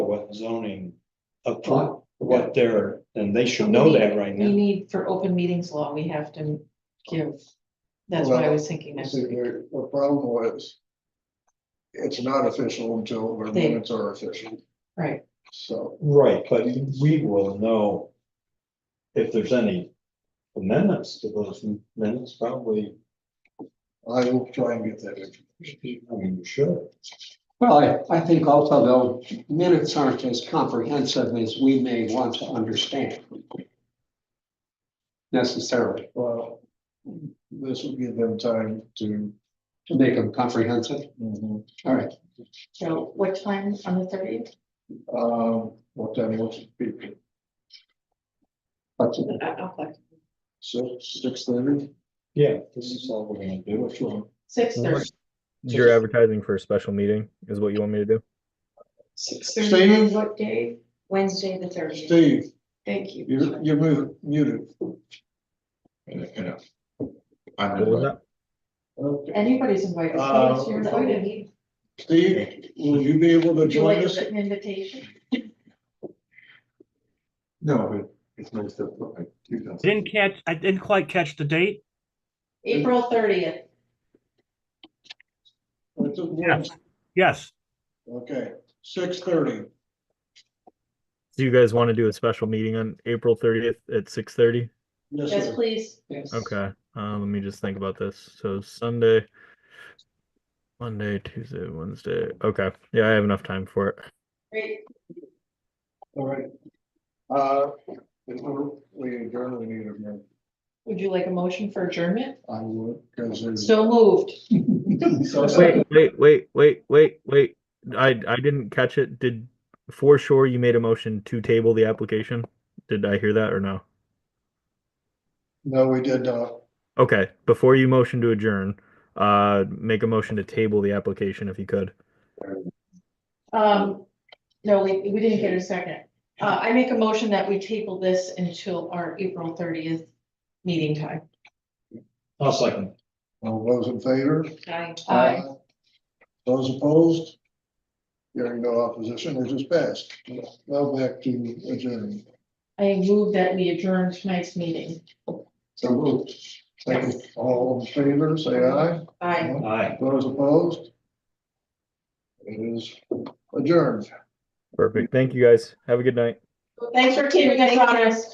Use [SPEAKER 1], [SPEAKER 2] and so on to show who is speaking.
[SPEAKER 1] zoning appro what they're, and they should know that right
[SPEAKER 2] We
[SPEAKER 1] now.
[SPEAKER 2] need for open meetings law, we have to give, that's what I was thinking next
[SPEAKER 3] See,
[SPEAKER 2] week.
[SPEAKER 3] the, the problem was. It's not official until the
[SPEAKER 2] They-
[SPEAKER 3] minutes are official,
[SPEAKER 2] Right,
[SPEAKER 3] so.
[SPEAKER 1] Right, but we will know if there's any amendments to those minutes, probably,
[SPEAKER 3] I will try and get that. information.
[SPEAKER 1] I mean, you should.
[SPEAKER 4] Well, I, I think also though, minutes aren't as comprehensive as we may want to understand. Necessarily,
[SPEAKER 3] Well, this will give them time to.
[SPEAKER 4] to make them comprehensive,
[SPEAKER 3] mhm.
[SPEAKER 4] all right.
[SPEAKER 2] so what time on the thirtieth?
[SPEAKER 3] Um, what time was it? Be-
[SPEAKER 4] But
[SPEAKER 3] Six, six thirty?
[SPEAKER 1] Yeah, this is all we're gonna do.
[SPEAKER 3] Which one?
[SPEAKER 2] Six thirty.
[SPEAKER 5] You're advertising for a special meeting is what you want me to do?
[SPEAKER 2] Six
[SPEAKER 3] Steve?
[SPEAKER 2] What day? Wednesday, the thirtieth.
[SPEAKER 3] Steve,
[SPEAKER 2] Thank you.
[SPEAKER 3] you, you're mu- muted.
[SPEAKER 5] What was that?
[SPEAKER 3] Okay.
[SPEAKER 2] Anybody's invited.
[SPEAKER 3] Uh,
[SPEAKER 2] You're invited.
[SPEAKER 3] Steve, will you be able to
[SPEAKER 2] Would you like
[SPEAKER 3] join
[SPEAKER 2] a
[SPEAKER 3] us?
[SPEAKER 2] written invitation?
[SPEAKER 3] No, it's nice to.
[SPEAKER 6] Didn't catch, I didn't quite catch the date.
[SPEAKER 2] April thirtieth.
[SPEAKER 6] Yes,
[SPEAKER 3] Okay, six thirty.
[SPEAKER 5] Do you guys want to do a special meeting on April thirtieth at six thirty?
[SPEAKER 3] Yes,
[SPEAKER 2] Yes,
[SPEAKER 3] sir.
[SPEAKER 2] please.
[SPEAKER 5] Okay, um, let me just think about this. So Sunday, Monday, Tuesday, Wednesday. Okay, yeah, I have enough time for it.
[SPEAKER 2] Great.
[SPEAKER 3] All right. Uh, if we're- we adjourn, we need a minute.
[SPEAKER 2] Would you like a motion for adjournment?
[SPEAKER 3] I would, because there's.
[SPEAKER 2] So moved.
[SPEAKER 5] Wait, wait, wait, wait, wait, wait. I, I didn't catch it. Did, for sure, you made a motion to table the application? Did I hear that or no?
[SPEAKER 3] No, we did uh, not.
[SPEAKER 5] Okay, before you motion to adjourn, uh, make a motion to table the application if you could.
[SPEAKER 2] Um, no, we, we didn't get a second. Uh, I make a motion that we table this until our April thirtieth meeting time.
[SPEAKER 1] I'll second.
[SPEAKER 3] All those in favor?
[SPEAKER 2] Aye.
[SPEAKER 3] Those opposed? Hearing no opposition, it is passed. Now back to adjourn.
[SPEAKER 2] I move that we adjourn tonight's meeting.
[SPEAKER 3] So moved. Thank you. All in favor, say aye.
[SPEAKER 2] Aye.
[SPEAKER 1] Aye.
[SPEAKER 3] Those opposed? It is adjourned.
[SPEAKER 5] Perfect. Thank you guys. Have a good night.
[SPEAKER 2] Thanks for keeping us honest.